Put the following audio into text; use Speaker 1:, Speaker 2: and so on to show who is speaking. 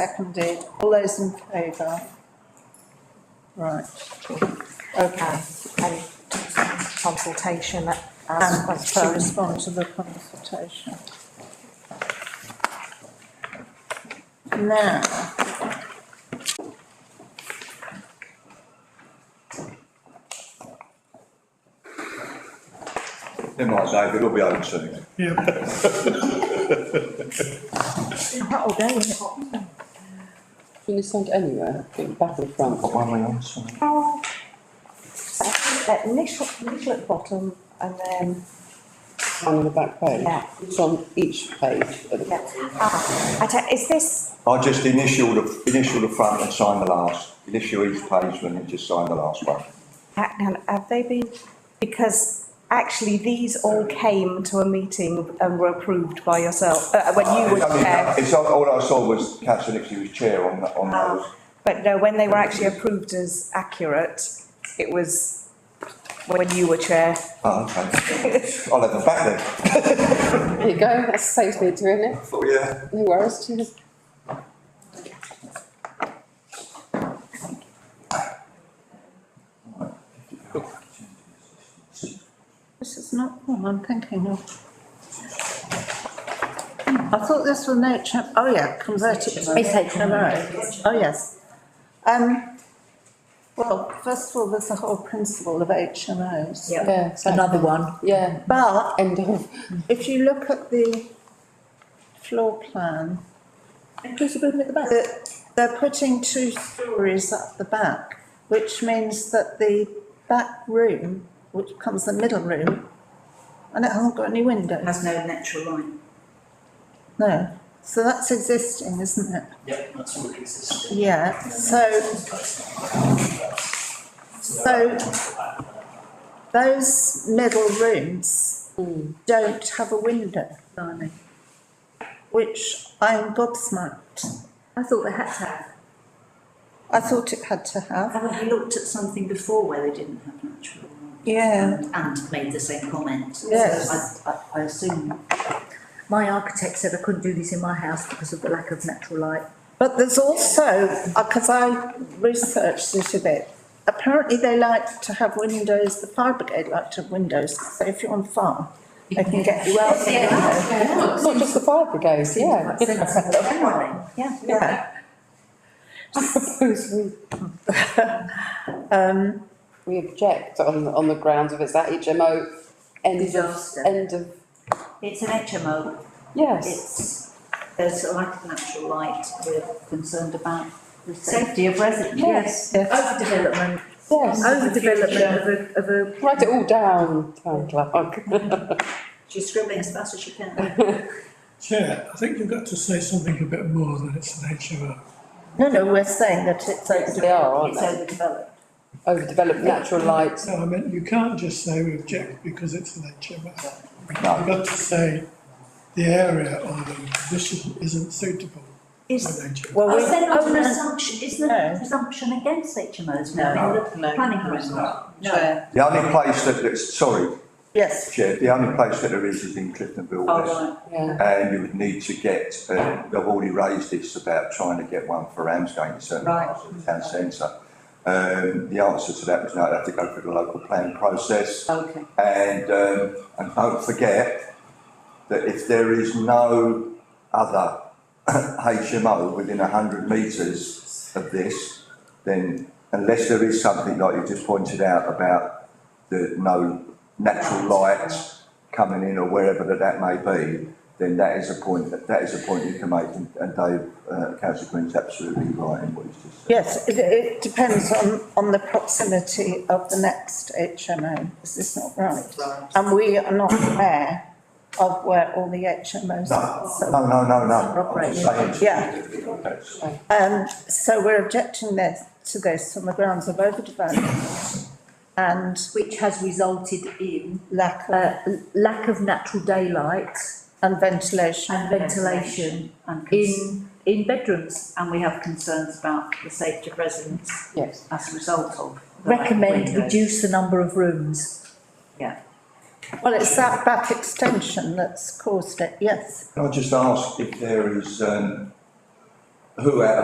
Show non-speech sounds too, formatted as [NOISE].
Speaker 1: seconded. All those in favour? Right. Okay.
Speaker 2: and consultation
Speaker 3: Ah,
Speaker 1: And
Speaker 2: as
Speaker 1: to
Speaker 2: per.
Speaker 1: respond to the consultation. Now.
Speaker 4: Never mind, David, it'll be open soon.
Speaker 2: Oh, there you go.
Speaker 5: Can you send anywhere, I think, back and front?
Speaker 2: So I think that Initial, initial at the bottom and then,
Speaker 5: On the back page?
Speaker 2: Yeah.
Speaker 5: It's on each page at the
Speaker 2: yeah. Ah, I don't, is this,
Speaker 4: I just initial the, initial the front and sign the last, initial each page and then just sign the last one.
Speaker 2: hang on, have they been, because actually these all came to a meeting and were approved by yourself, uh, when you
Speaker 4: It's
Speaker 2: were
Speaker 4: only-
Speaker 2: chair.
Speaker 4: It's, all- all I saw was Councillor Nixie was chair on, that- on
Speaker 3: Oh.
Speaker 4: those.
Speaker 2: But no, when they were actually approved as accurate, it was when you were chair.
Speaker 4: Oh, okay. I'll have them back then.
Speaker 5: There you go, that saves me doing it.
Speaker 4: Oh, yeah.
Speaker 5: No worries, cheers.
Speaker 1: This is not one I'm thinking of. I thought this was nature, oh yeah, converted. It's HMO. Oh, yes. Um, well, first of all, there's the whole principle of HMOs.
Speaker 2: Yeah.
Speaker 5: Yeah, another one. Yeah,
Speaker 1: But
Speaker 5: end of.
Speaker 1: if you look at the floor plan. Inclusive building at the back. They're putting two stories at the back, which means that the back room, which becomes the middle room, and it hasn't got any windows.
Speaker 3: has no natural light.
Speaker 1: No, so that's existing, isn't it?
Speaker 6: Yep, that's all existing.
Speaker 1: Yeah, so So- those middle rooms don't have a window lining, which I'm gobsmacked.
Speaker 3: I thought they had to have.
Speaker 1: I thought it had to have.
Speaker 3: Haven't we looked at something before where they didn't have natural light?
Speaker 1: Yeah,
Speaker 7: Um,
Speaker 3: And- And made the same comment.
Speaker 1: Yes.
Speaker 3: I, I, I assume.
Speaker 7: My architect said I couldn't do this in my house because of the lack of natural
Speaker 3: [LAUGHS]
Speaker 7: light.
Speaker 1: but there's also, because I researched it a bit, apparently they like to have windows, the fire brigade like to have windows, so if you're on fire, they can get you
Speaker 3: [LAUGHS]
Speaker 1: out. the window.
Speaker 5: Not just the fire brigade, yeah.
Speaker 7: Quite sensible generally.
Speaker 3: Yeah.
Speaker 1: Yeah,
Speaker 5: I suppose [LAUGHS] we,
Speaker 1: um,
Speaker 5: we object on, on the grounds of it's that HMO end of,
Speaker 7: Disaster.
Speaker 5: end of,
Speaker 3: It's an HMO,
Speaker 5: yes.
Speaker 3: it's, there's a lack of natural light, we're concerned about the safety of residents.
Speaker 7: Yes, overdevelopment,
Speaker 5: Yes,
Speaker 7: overdevelopment of a, of a.
Speaker 5: write it all down, Oh, town clerk.
Speaker 3: She's scribbling as fast as she can.
Speaker 8: Chair, I think you've got to say something a bit more than it's an HMO.
Speaker 1: No, no, we're saying that it's
Speaker 5: They
Speaker 1: overdeveloped.
Speaker 5: are, aren't
Speaker 3: It's
Speaker 5: they?
Speaker 3: overdeveloped.
Speaker 5: Overdeveloped natural light.
Speaker 8: So I meant you can't just say we object because it's an HMO. You've
Speaker 4: No.
Speaker 8: got to say the area or the condition isn't suitable
Speaker 3: Is,
Speaker 8: for an HMO.
Speaker 1: Well,
Speaker 3: is there not an
Speaker 1: owners-
Speaker 3: assumption, is there
Speaker 1: No.
Speaker 3: a presumption against HMOs now?
Speaker 1: No.
Speaker 3: in the
Speaker 1: No.
Speaker 3: Planning horizon?
Speaker 1: No.
Speaker 4: The only place that, that's, sorry,
Speaker 1: Yes,
Speaker 4: Chair, the only place that there is is in Cliftonville
Speaker 3: Oh,
Speaker 4: West.
Speaker 3: right.
Speaker 5: Yeah,
Speaker 4: And you would need to get, uh, I've already raised this about trying to get one for Ramsgate in certain
Speaker 3: Right.
Speaker 4: parts of the town centre. Um, the answer to that was no, they have to go through the local plan process.
Speaker 3: Okay.
Speaker 4: And, um, and don't forget that if there is no other [CLEARS THROAT] HMO within hundred metres of this, then unless there is something like you just pointed out about the no natural light coming in or wherever that that may be, then that is a point, that that is a point you can make, and and Dave, uh, councillor Green's absolutely right in what he's just said.
Speaker 1: yes, it, it depends on, on the proximity of the next HMO, is this not right? And we are not aware of where all the HMOs are. so-
Speaker 4: No, no, no, no, I'm just saying.
Speaker 1: Yeah.
Speaker 4: That's-
Speaker 1: Um, so we're objecting this, to this on the grounds of overdevelopment and
Speaker 7: Which has resulted in,
Speaker 1: lack of,
Speaker 7: uh, l- lack of natural daylight
Speaker 1: and ventilation.
Speaker 7: and ventilation
Speaker 3: And cons-
Speaker 7: in, in bedrooms.
Speaker 3: and we have concerns about the safety of residents
Speaker 5: yes.
Speaker 3: as a result of. the lack of
Speaker 7: Recommend
Speaker 3: windows.
Speaker 7: reduce the number of rooms.
Speaker 3: Yeah,
Speaker 1: Well, it's that back extension that's caused it, yes.
Speaker 4: Can I just ask if there is, um, who out of